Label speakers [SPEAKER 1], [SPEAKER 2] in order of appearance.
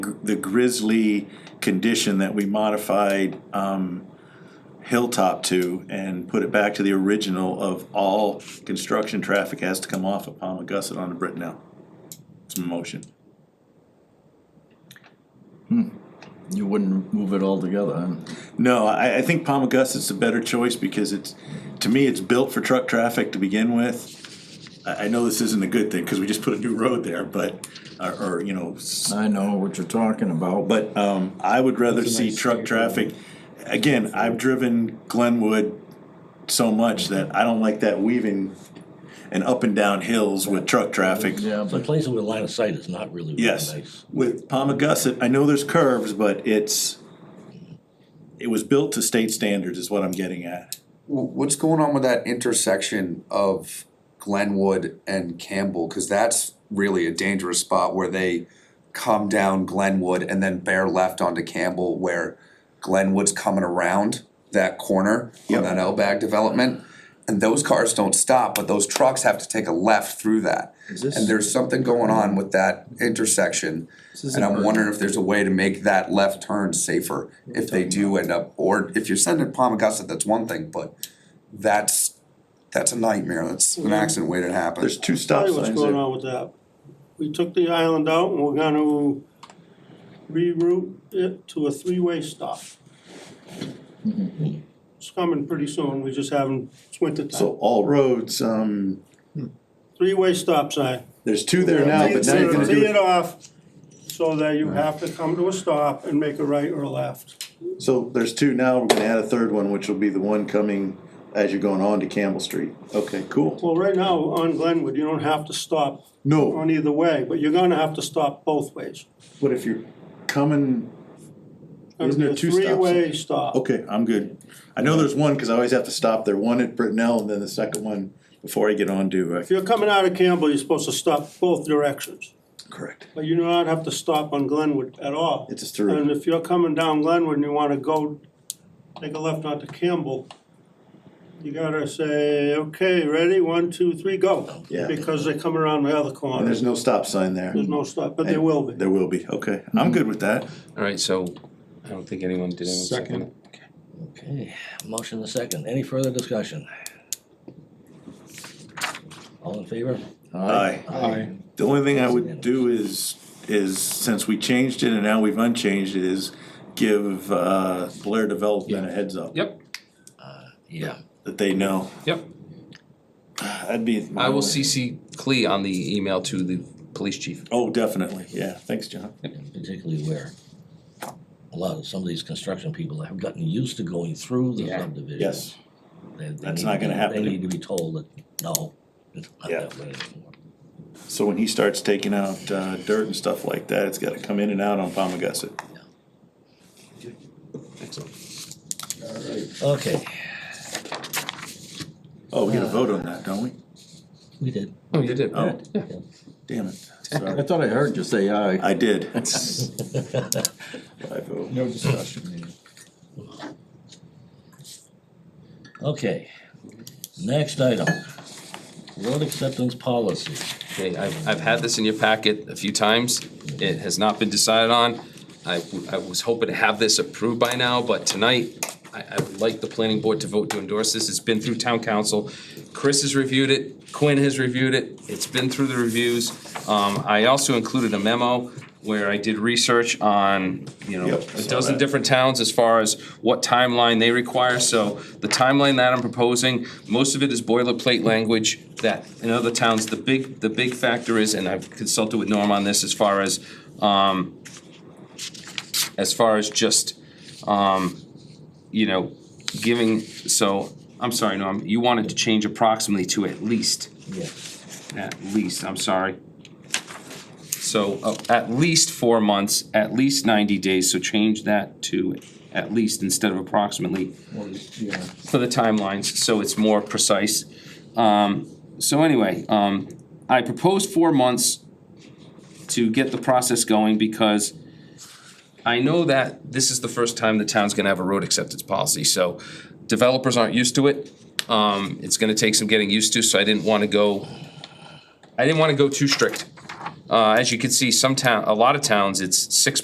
[SPEAKER 1] the grizzly condition that we modified um, Hilltop to and put it back to the original of all construction traffic has to come off of Palma Gussit onto Brittenell. It's a motion.
[SPEAKER 2] You wouldn't move it all together, huh?
[SPEAKER 1] No, I, I think Palma Gussit's a better choice because it's, to me, it's built for truck traffic to begin with. I, I know this isn't a good thing because we just put a new road there, but, or, or, you know, s-
[SPEAKER 2] I know what you're talking about, but
[SPEAKER 1] but, um, I would rather
[SPEAKER 3] It's a
[SPEAKER 1] see
[SPEAKER 3] nice
[SPEAKER 1] truck
[SPEAKER 3] straight
[SPEAKER 1] traffic. Again, I've driven Glenwood so much that I don't like that weaving and up and down hills with truck traffic.
[SPEAKER 2] yeah,
[SPEAKER 3] Some
[SPEAKER 2] but
[SPEAKER 3] places with line of sight is not really really nice.
[SPEAKER 1] Yes, with Palma Gussit, I know there's curves, but it's, it was built to state standards is what I'm getting at.
[SPEAKER 4] Wh- What's going on with that intersection of Glenwood and Campbell? Cause that's really a dangerous spot where they come down Glenwood and then bear left onto Campbell where Glenwood's coming around that corner on that L-bag development. And those cars don't stop, but those trucks have to take a left through that.
[SPEAKER 2] this-
[SPEAKER 4] And there's something going on with that intersection.
[SPEAKER 2] is
[SPEAKER 4] And I'm
[SPEAKER 2] important.
[SPEAKER 4] wondering if there's a way to make that left turn safer if they do end up, or if you're sending Palm Augusta, that's one thing, but that's, that's a nightmare, that's an accident waiting to happen.
[SPEAKER 1] There's two
[SPEAKER 5] Tell
[SPEAKER 1] stop
[SPEAKER 5] you what's
[SPEAKER 1] signs
[SPEAKER 5] going
[SPEAKER 1] there.
[SPEAKER 5] on with that. We took the island out and we're gonna reroute it to a three-way stop. It's coming pretty soon, we just haven't, it's winter
[SPEAKER 1] So
[SPEAKER 5] time.
[SPEAKER 1] all roads, um,
[SPEAKER 5] Three-way stop sign.
[SPEAKER 1] there's two there now, but now you're gonna
[SPEAKER 5] Tee
[SPEAKER 1] do
[SPEAKER 5] it off so that you have to come to a stop and make a right or a left.
[SPEAKER 1] it. So there's two now, we're gonna add a third one, which will be the one coming as you're going on to Campbell Street. Okay, cool.
[SPEAKER 5] Well, right now on Glenwood, you don't have to stop
[SPEAKER 1] No,
[SPEAKER 5] on either way, but you're gonna have to stop both ways.
[SPEAKER 1] but if you're coming,
[SPEAKER 5] It's
[SPEAKER 1] Isn't there
[SPEAKER 5] gonna be a
[SPEAKER 1] two Oh. stop signs?
[SPEAKER 5] Three-way stop.
[SPEAKER 1] okay, I'm good. I know there's one, cause I always have to stop there, one at Brittenell and then the second one before I get on to, uh,
[SPEAKER 5] If you're coming out of Campbell, you're supposed to stop both directions.
[SPEAKER 1] correct.
[SPEAKER 5] But you do not have to stop on Glenwood at all.
[SPEAKER 1] It's just through.
[SPEAKER 5] And if you're coming down Glenwood and you wanna go, take a left onto Campbell, you gotta say, okay, ready, one, two, three, go.
[SPEAKER 1] Yeah.
[SPEAKER 5] Because they come around the other
[SPEAKER 1] And
[SPEAKER 5] corner,
[SPEAKER 1] there's no stop sign there.
[SPEAKER 5] there's no stop, but there will be.
[SPEAKER 1] There will be, okay.
[SPEAKER 6] Mm-hmm.
[SPEAKER 1] I'm good with that.
[SPEAKER 6] Alright, so I don't think anyone did anyone second it.
[SPEAKER 3] Okay, motion and second, any further discussion? All in favor?
[SPEAKER 1] Aye.
[SPEAKER 3] Aye.
[SPEAKER 1] The only thing I would do is, is since we changed it and now we've unchanged it, is give uh, Blair Development a heads up.
[SPEAKER 6] Yep,
[SPEAKER 3] Yeah,
[SPEAKER 1] That they know.
[SPEAKER 6] yep.
[SPEAKER 1] That'd be.
[SPEAKER 6] I will CC Clee on the email to the police chief.
[SPEAKER 1] Oh, definitely, yeah, thanks, John.
[SPEAKER 3] and particularly where a lot of, some of these construction people have gotten used to going through the
[SPEAKER 6] Yeah.
[SPEAKER 3] subdivision.
[SPEAKER 1] Yes,
[SPEAKER 3] They- they
[SPEAKER 1] That's
[SPEAKER 3] need
[SPEAKER 1] not
[SPEAKER 3] to be-
[SPEAKER 1] gonna happen.
[SPEAKER 3] They need to be told that, no, it's not
[SPEAKER 1] Yeah.
[SPEAKER 3] that way anymore.
[SPEAKER 1] so when he starts taking out uh, dirt and stuff like that, it's gotta come in and out on Palmagussit.
[SPEAKER 3] Okay,
[SPEAKER 1] Oh, we get a vote on that, don't we?
[SPEAKER 3] we did.
[SPEAKER 6] Oh, you did,
[SPEAKER 1] Oh.
[SPEAKER 6] yeah.
[SPEAKER 1] Damn it,
[SPEAKER 2] I
[SPEAKER 1] sorry.
[SPEAKER 2] thought I heard you say aye.
[SPEAKER 1] I did.
[SPEAKER 7] No discussion needed.
[SPEAKER 3] Okay, next item, road acceptance policy.
[SPEAKER 6] Okay, I've, I've had this in your packet a few times. It has not been decided on. I, w- I was hoping to have this approved by now, but tonight, I, I would like the planning board to vote to endorse this. It's been through town council. Chris has reviewed it, Quinn has reviewed it, it's been through the reviews. Um, I also included a memo where I did research on, you know,
[SPEAKER 1] Yep, I
[SPEAKER 6] a
[SPEAKER 1] saw
[SPEAKER 6] dozen
[SPEAKER 1] that.
[SPEAKER 6] different towns as far as what timeline they require, so the timeline that I'm proposing, most of it is boilerplate language that in other towns, the big, the big factor is, and I've consulted with Norm on this as far as, um, as far as just, um, you know, giving, so, I'm sorry, Norm, you wanted to change approximately to at least.
[SPEAKER 3] Yeah.
[SPEAKER 6] At least, I'm sorry. So, uh, at least four months, at least ninety days, so change that to at least instead of approximately
[SPEAKER 7] Well, yeah.
[SPEAKER 6] for the timelines, so it's more precise. Um, so anyway, um, I proposed four months to get the process going because I know that this is the first time the town's gonna have a road acceptance policy, so developers aren't used to it. Um, it's gonna take some getting used to, so I didn't wanna go, I didn't wanna go too strict. Uh, as you can see, some town, a lot of towns, it's six